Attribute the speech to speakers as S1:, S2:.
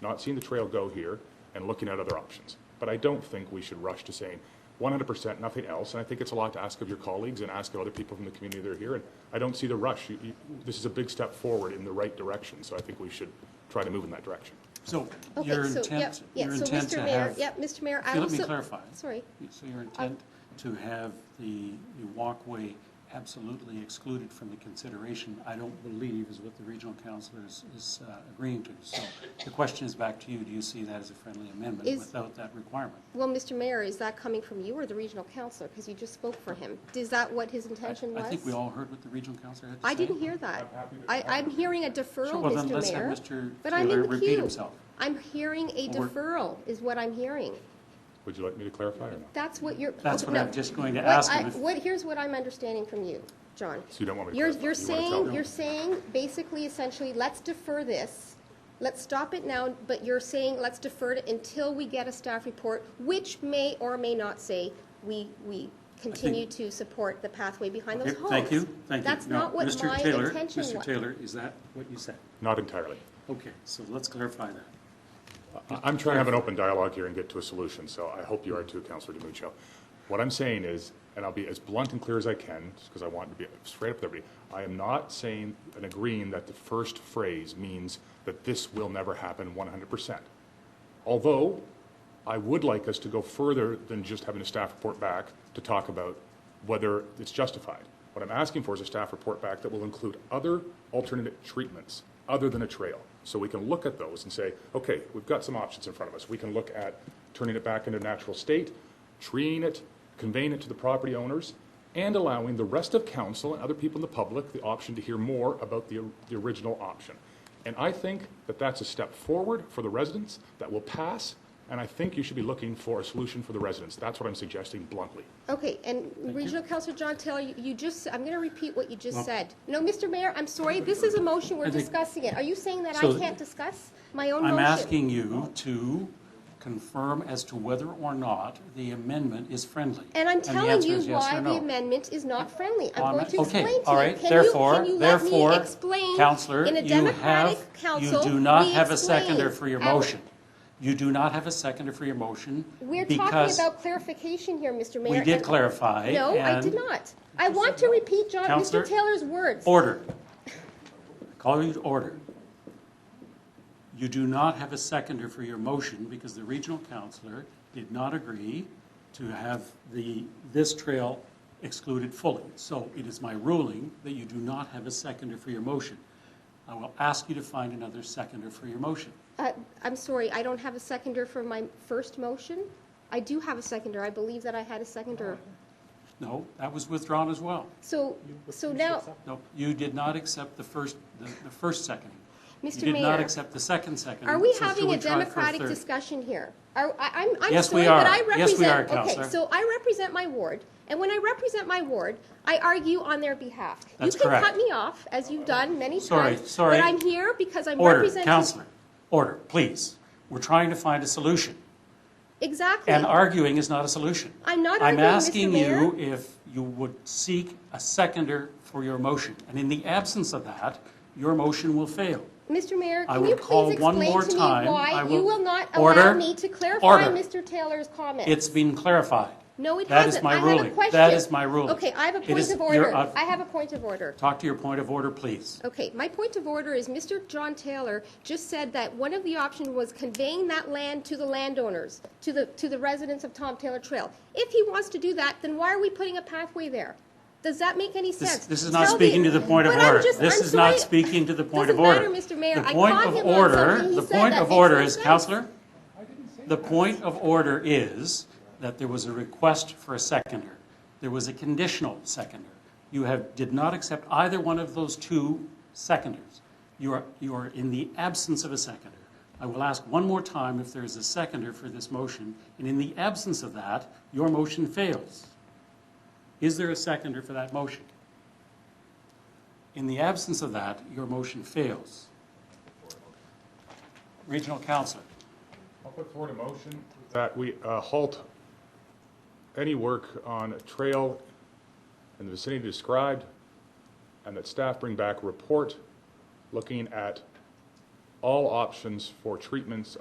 S1: not seeing the trail go here, and looking at other options. But I don't think we should rush to saying 100% nothing else, and I think it's a lot to ask of your colleagues and ask of other people from the community that are here, and I don't see the rush. You- you- This is a big step forward in the right direction, so I think we should try to move in that direction.
S2: So
S3: Okay,
S2: your
S3: so, yep,
S2: intent,
S3: yeah,
S2: your
S3: so
S2: intent
S3: Mr.
S2: to
S3: Mayor-
S2: have.
S3: Yep, Mr. Mayor, I
S2: Okay,
S3: also.
S2: Let me clarify.
S3: Sorry.
S2: So your intent to have the the walkway absolutely excluded from the consideration, I don't believe is what the regional council is, is uh, agreeing to. So the question is back to you, do you see that as a friendly amendment
S3: Is-
S2: without that requirement?
S3: Well, Mr. Mayor, is that coming from you or the regional counselor? Because you just spoke for him. Is that what his
S2: I-
S3: intention was?
S2: I think we all heard what the regional council had to say.
S3: I didn't hear that. I, I'm hearing a deferral,
S2: Well, then let's
S3: Mr.
S2: have
S3: Mayor.
S2: Mr.
S3: But I'm in
S2: Taylor
S3: the
S2: repeat
S3: queue.
S2: himself.
S3: I'm hearing a
S2: Well, we're-
S3: deferral is what I'm hearing.
S1: Would you like me to clarify or not?
S3: That's what you're.
S2: That's what
S3: no.
S2: I'm just going to
S3: What
S2: ask
S3: I-
S2: him if-
S3: What, here's what I'm understanding from you, John.
S1: So you don't want me to
S3: You're,
S1: clarify? You
S3: you're
S1: wanna tell
S3: saying,
S1: me?
S3: you're saying, basically, essentially, let's defer this, let's stop it now, but you're saying, let's defer it until we get a staff report, which may or may not say, we, we continue to support the pathway behind those
S2: Okay,
S3: homes.
S2: Thank you, thank you.
S3: That's
S2: No,
S3: not what
S2: Mr.
S3: my
S2: Taylor-
S3: intention was.
S2: Mr. Taylor, is that what you said?
S1: Not entirely.
S2: Okay, so let's clarify that.
S1: I- I'm trying to have an open dialogue here and get to a solution, so I hope you are too, Counselor DiMuccio. What I'm saying is, and I'll be as blunt and clear as I can, because I want to be straight up with everybody, I am not saying and agreeing that the first phrase means that this will never happen 100%. Although, I would like us to go further than just having a staff report back to talk about whether it's justified. What I'm asking for is a staff report back that will include other alternate treatments other than a trail. So we can look at those and say, okay, we've got some options in front of us. We can look at turning it back into a natural state, treeing it, conveying it to the property owners, and allowing the rest of council and other people in the public the option to hear more about the, the original option. And I think that that's a step forward for the residents that will pass, and I think you should be looking for a solution for the residents. That's what I'm suggesting bluntly.
S3: Okay, and Regional Councilor John Taylor, you- you just, I'm going to repeat what you just said. No, Mr. Mayor, I'm sorry, this is a motion, we're
S2: I think-
S3: discussing it. Are you saying that I
S2: So-
S3: can't discuss my own motion?
S2: I'm asking you to confirm as to whether or not the amendment is friendly.
S3: And I'm
S2: the
S3: telling
S2: answer
S3: you
S2: is yes or
S3: why the
S2: no.
S3: amendment is not friendly. I'm
S2: On-
S3: going to explain to you.
S2: Okay, all right,
S3: Can you-
S2: therefore,
S3: can you let me
S2: therefore,
S3: explain?
S2: Counselor,
S3: In a
S2: you
S3: democratic
S2: have, you
S3: council,
S2: do not
S3: we
S2: have a
S3: explain
S2: seconder for your
S3: our-
S2: motion. You do not have a seconder for your motion
S3: We're talking
S2: because
S3: about clarification here, Mr. Mayor.
S2: we did
S3: and-
S2: clarify.
S3: No, I
S2: and-
S3: did not. I want to repeat John,
S2: Counselor-
S3: Mr. Taylor's words.
S2: Order. Call you to order. You do not have a seconder for your motion because the regional counselor did not agree to have the, this trail excluded fully. So it is my ruling that you do not have a seconder for your motion. I will ask you to find another seconder for your motion.
S3: Uh, I'm sorry, I don't have a seconder for my first motion. I do have a seconder. I believe that I had a seconder.
S2: No, that was withdrawn as well.
S3: So, so now,
S2: No, you did not accept the first, the, the first second.
S3: Mr.
S2: You did not
S3: Mayor,
S2: accept the second second.
S3: Are we
S2: so should
S3: having a
S2: try for
S3: democratic
S2: third?
S3: discussion here? Are, I, I'm, I'm
S2: Yes,
S3: sorry,
S2: we
S3: but
S2: are.
S3: I represent.
S2: Yes, we are,
S3: Okay,
S2: Counselor.
S3: so I represent my ward, and when I represent my ward, I argue on their behalf.
S2: That's
S3: You can
S2: correct.
S3: cut me off, as you've done many
S2: Sorry,
S3: times.
S2: sorry.
S3: But I'm here because I'm
S2: Order,
S3: representing.
S2: counselor, order, please. We're trying to find a solution,
S3: Exactly.
S2: and arguing is not a solution.
S3: I'm not
S2: I'm
S3: arguing, Mr.
S2: asking
S3: Mayor.
S2: you if you would seek a seconder for your motion, and in the absence of that, your motion will fail.
S3: Mr. Mayor,
S2: I
S3: can
S2: will
S3: you
S2: call
S3: please
S2: one
S3: explain
S2: more
S3: to me
S2: time.
S3: why
S2: I
S3: you
S2: will-
S3: will not
S2: Order.
S3: allow me to clarify
S2: Order.
S3: Mr. Taylor's comment?
S2: It's been clarified.
S3: No, it
S2: That
S3: hasn't.
S2: is my
S3: I have a
S2: ruling.
S3: question.
S2: That is my ruling.
S3: Okay, I have a
S2: It
S3: point
S2: is-
S3: of
S2: you're
S3: order.
S2: up-
S3: I have a point of order.
S2: Talk to your point of order, please.
S3: Okay, my point of order is Mr. John Taylor just said that one of the options was conveying that land to the landowners, to the, to the residents of Tom Taylor Trail. If he wants to do that, then why are we putting a pathway there? Does that make any
S2: This,
S3: sense?
S2: this is not
S3: Tell
S2: speaking to the point of
S3: But I'm
S2: order.
S3: just-
S2: This
S3: I'm
S2: is not
S3: sorry.
S2: speaking to the point of
S3: Doesn't
S2: order.
S3: matter, Mr. Mayor.
S2: The
S3: I
S2: point
S3: caught
S2: of
S3: him on
S2: order-
S3: something he
S2: The
S3: said
S2: point
S3: that
S2: of
S3: makes
S2: order
S3: no
S2: is,
S3: sense.
S2: Counselor, the point of order is that there was a request for a seconder. There was a conditional seconder. You have, did not accept either one of those two seconders. You are, you are in the absence of a seconder. I will ask one more time if there is a seconder for this motion, and in the absence of that, your motion fails. Is there a seconder for that motion? In the absence of that, your motion fails. Regional Council,
S1: I'll put forward a motion that we uh, halt any work on a trail in the vicinity described, and that staff bring back a report looking at all options for treatments